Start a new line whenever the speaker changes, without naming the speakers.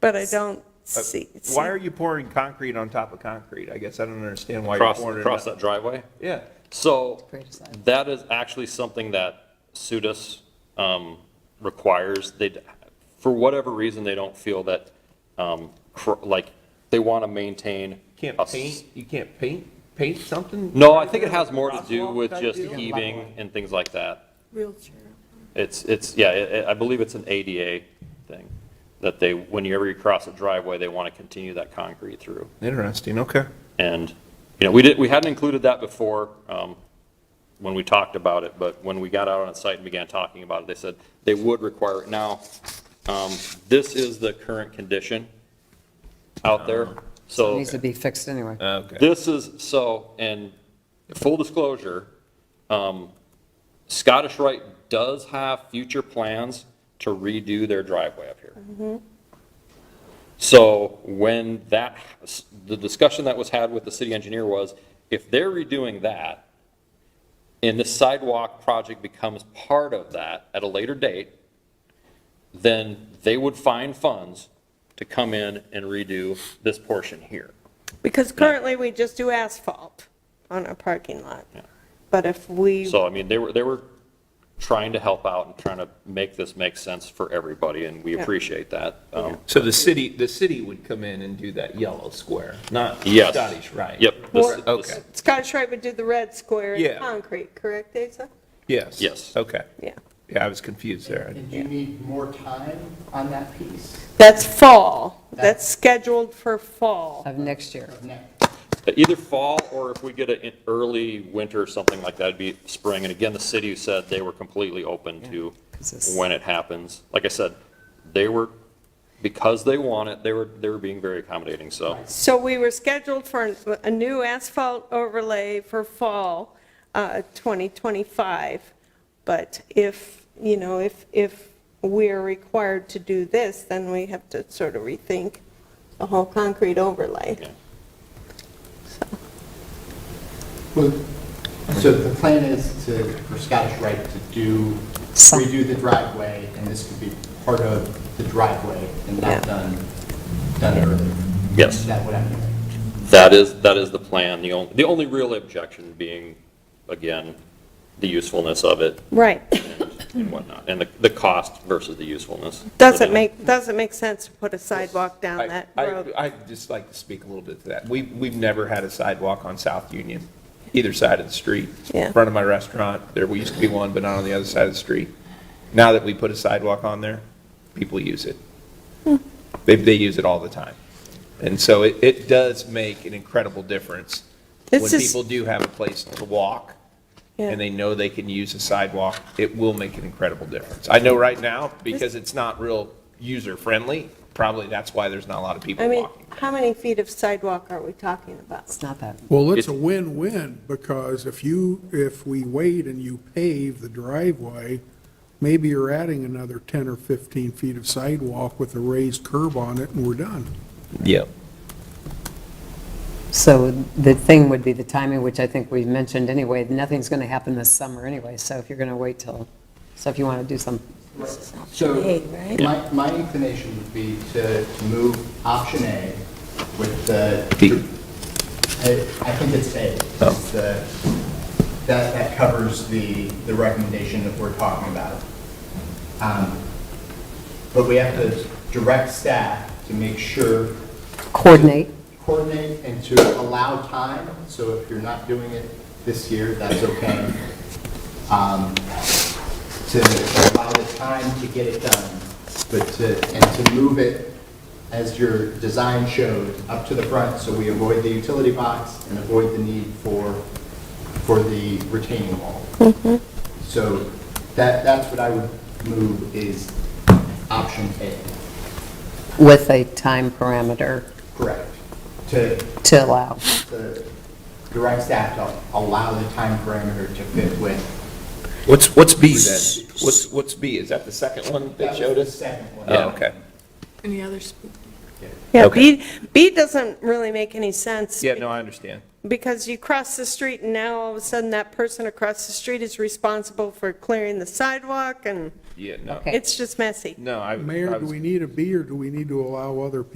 But I don't see.
Uh, Why are you pouring concrete on top of concrete? I guess I don't understand why you're
Across,
pouring it.
across
on-
that driveway?
Yeah,
So
Great design.
that is actually something that SUDAS um, requires. They, for whatever reason, they don't feel that, um, cr- like, they want to maintain.
can't
a s-
paint, you can't paint, paint something?
No, I think it has more to do
Crosswalk
with
type
just
deal?
heaving and things like that.
Wheelchair.
It's, it's, yeah, I- I I believe it's an ADA thing, that they, whenever you cross a driveway, they want to continue that concrete through.
Interesting, okay.
And, you know, we did, we hadn't included that before um, when we talked about it, but when we got out on site and began talking about it, they said they would require it. Now, um, this is the current condition out there, so.
Uh-huh. Needs to be fixed anyway.
Okay.
This is, so, and full disclosure, um, Scottish Rite does have future plans to redo their driveway up here. So when that, the discussion that was had with the city engineer was, if they're redoing that, and the sidewalk project becomes part of that at a later date, then they would find funds to come in and redo this portion here.
Because currently, we just do asphalt on our parking lot. But if we,
So, I mean, they were, they were trying to help out and trying to make this make sense for everybody, and we
Yeah.
appreciate that. Um,
So the city, the city would come in and do that yellow square, not
Yes.
Scottish, right?
Yep. this-
Or-
this-
Okay,
Scottish Rite would do the red square
Yeah.
in concrete, correct, Asa?
yes.
Yes.
Okay,
Yeah.
yeah, I was confused there.
Did you need more time on that piece
That's fall. That's scheduled for fall.
Of next year.
of next?
Either fall, or if we get an early winter or something like that, it'd be spring. And again, the city said they were completely open to
'Cause it's-
when it happens. Like I said, they were, because they want it, they were, they were being very accommodating, so.
So we were scheduled for an- a new asphalt overlay for fall uh, 2025, but if, you know, if, if we're required to do this, then we have to sort of rethink the whole concrete overlay.
Yeah.
Well, So the plan is to, for Scottish Rite to do,
Some-
redo the driveway, and this could be part of the driveway and
Yeah.
not done, done earlier?
Yes.
Is that what I'm hearing?
That is, that is the plan. The only, the only real objection being, again, the usefulness of it.
Right.
and whatnot, and the, the cost versus the usefulness.
Doesn't make, doesn't make sense to put a sidewalk down
I,
that road.
I, I'd just like to speak a little bit to that. We, we've never had a sidewalk on South Union, either side of the street.
Yeah.
In front of my restaurant, there, we used to be one, but not on the other side of the street. Now that we put a sidewalk on there, people use it.
Hmm.
They, they use it all the time. And so it, it does make an incredible difference when
This is-
people do have a place to walk
Yeah.
and they know they can use a sidewalk, it will make an incredible difference. I know right now, because it's not real user-friendly, probably that's why there's not a lot of people
I mean,
walking.
how many feet of sidewalk are we talking about?
It's not that.
Well, it's a
It's-
win-win, because if you, if we wait and you pave the driveway, maybe you're adding another 10 or 15 feet of sidewalk with a raised curb on it, and we're done.
Yep.
So the thing would be the timing, which I think we've mentioned anyway. Nothing's going to happen this summer anyway, so if you're going to wait till, so if you want to do some,
So,
A, right?
my, my inclination would be to to move option A with the,
B.
I I think it's A.
Oh.
It's the- That, that covers the, the recommendation that we're talking about. Um, But we have to direct staff to make sure
coordinate.
coordinate and to allow time, so if you're not doing it this year, that's okay. Um, To allow the time to get it done, but to, and to move it, as your design showed, up to the front, so we avoid the utility box and avoid the need for, for the retaining wall. So that, that's what I would move is option A,
with a time parameter
correct? To
to allow.
the direct staff to allow the time parameter to fit with.
What's, what's B then? What's, what's B? Is that the second one they showed
The
us?
second one.
Oh, okay.
Yeah, B,
Okay.
B doesn't really make any sense.
Yeah, no, I understand.
because you cross the street and now all of a sudden that person across the street is responsible for clearing the sidewalk and
Yeah, no.
Okay.
it's just messy.
No, I. I
Mayor, do
was-
we need a B or do we need to allow other people